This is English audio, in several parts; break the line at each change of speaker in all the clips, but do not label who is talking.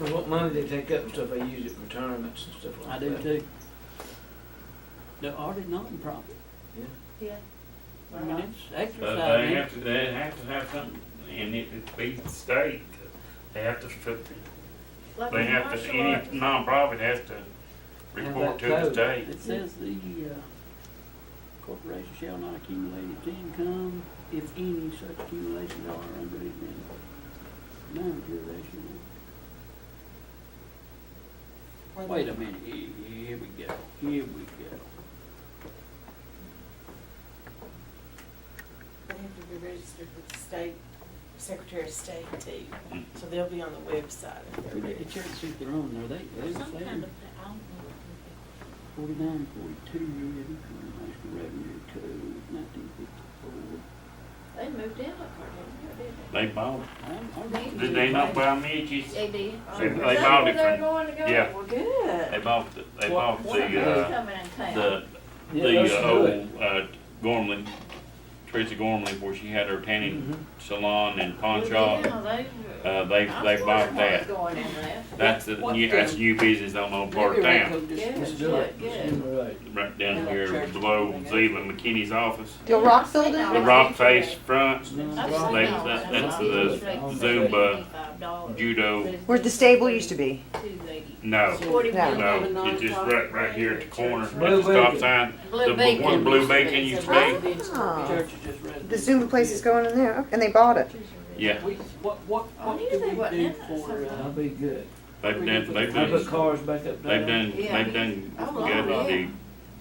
Well, what money they take up and stuff, they use it for tournaments and stuff
I
like
do
that.
too. They're already nonprofit.
Yeah.
I mean, it's
But
exercise.
they have to, they have to have something, and it it be the state, they have to, fit-
Like
they
in
have to,
martial
any
arts,
nonprofit has to report to the state.
It says the uh, corporation shall not accumulate its income if any such accumulations are under it. Non-jurisdiction.
or
Wait
the-
a minute, here, here we go, here we go.
They have to be registered with the state, Secretary of State too,
Mm-hmm.
so they'll be on the website if they're
Who did
ready.
the church think they're on there? They, they
Some kind
saying
of, I don't know.
forty-nine, forty-two, international revenue code, nineteen fifty-four.
They moved in up there,
They bought,
I'm, I'm.
did they not buy
didn't
Mitch's?
they? They did.
They-
Is
they
that
bought
where
it
They're
from-
going to go?
yeah.
Well, good.
They bought, the- they
What-
bought
what
the,
about
uh,
Coming in town.
the,
Yeah,
the
that's
uh,
good.
old, uh, Gormley, Teresa Gormley, where she had her
Mm-hmm.
tanning salon and pawn
Well,
shop.
yeah, they-
Uh, they,
I
they
swear
bought
they weren't
that. Uh,
Going in there.
That's a,
What
new- that's
the-
new business on Old Park
Maybe
Town,
Rocco just-
Yeah.
Let's do it.
Yeah,
Let's do
right down
Yeah.
here below Zeeland McKinney's office.
The rock building?
The rock face front,
I've
They-
seen all
that-
that.
that's
I've
the
seen
Zumba
$25.
judo,
Where the stable used to be.
$280.
no,
Forty
No.
bucks.
Oh. no, it's just right, right here at the corner, at
Blue
the stop
Beacon.
sign.
Blue
The b-
Beacon
one Blue
used to be,
Beacon
it's
used
a
to be.
Blue Beacon.
Oh.
Church is just residential.
The Zumba place is going in there, and they bought it.
Yeah,
We, what, what,
I
what
knew
do
they
we
wasn't
do
in that
for,
it.
uh,
That'll be good.
they've done, they've
I
done,
put cars back up there.
they've done,
Yeah.
they've done
Oh,
good
wow, yeah.
with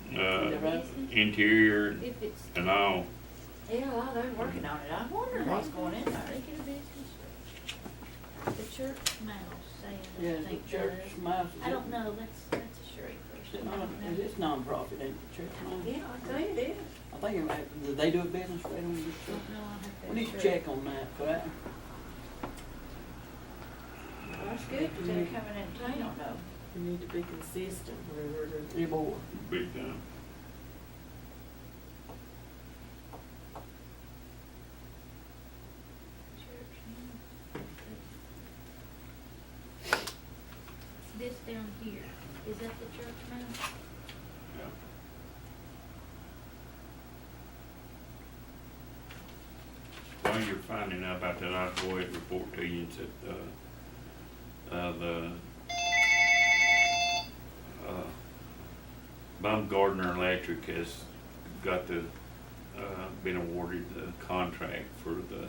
the, uh,
Right.
interior
If it's,
and all.
yeah, well, they're working on it. I wonder what's going in there. The church mouse,
yeah,
saying, I think
the church
that is.
mouse?
I don't know, that's, that's a
Is
Sherry
it
question. I
non,
don't
is
know.
it nonprofit, ain't it, church mouse?
Yeah, I think it is.
I think, it might- do they do a business right on this
Don't
church?
know, I have to
We need to
check.
check on that, but I,
Well, it's good that they're coming in town though.
We need to be consistent whenever we're
you're bored.
Big time.
This down here, is that the church mound?
While you're finding out about that, I'll go ahead and report to you, it's at, uh, uh, the, uh, Baumgardner Electric has got the, uh, been awarded the contract for the,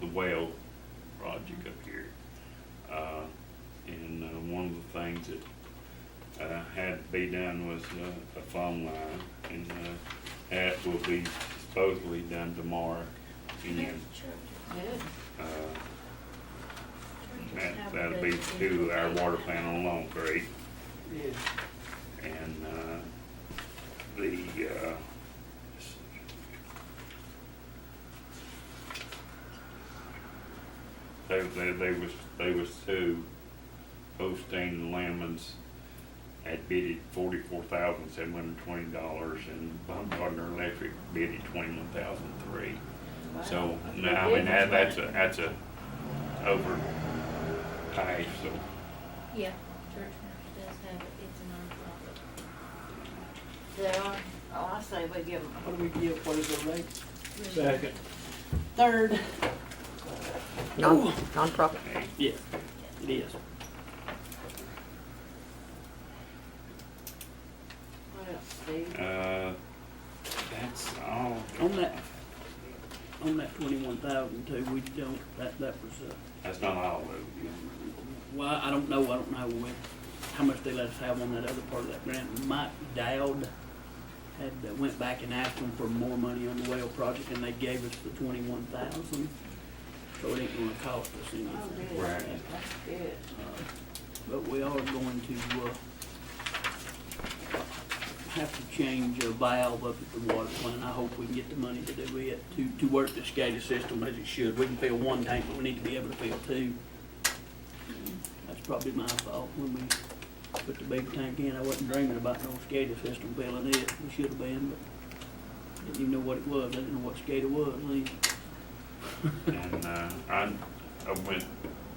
the well project up here. Uh, and, uh, one of the things that uh, had to be done was uh, a phone line, and uh, that will be supposedly done tomorrow. And uh, that- that'll be to our water plant on Long Creek,
Yeah,
and uh, the, uh, they, they, they was, they was to Osteen Lemons had bid it forty-four thousand seven hundred and twenty dollars and Baumgartner Electric bid it twenty-one thousand three. So, no, I mean, that- that's a, that's a over pay, so.
Yeah, church mouse does have it, it's a nonprofit. They are, oh, I say we give them.
what do we give, what is the rate?
Second.
Third.
Non Nonprofit.
Yeah, it is.
What else, Steve?
Uh, that's all.
On that, on that twenty-one thousand too, we don't, that, that was, uh,
That's not all of it.
Well, I don't know, I don't know what, how much they let us have on that other part of that grant. Mike Dowd had, uh, went back and asked them for more money on the well project, and they gave us the twenty-one thousand, so it ain't gonna cost us
Oh,
anything.
good.
Right.
That's good.
Uh, But we are going to, uh, have to change a valve up at the water plant. I hope we can get the money to do it, to, to work this gated system as it should. We can fill one tank, but we need to be able to fill two. That's probably my fault when we put the big tank in. I wasn't dreaming about no SCADA system filling it. We should have been, but didn't even know what it was. I didn't know what SCADA was. I mean,
And, uh, I, I went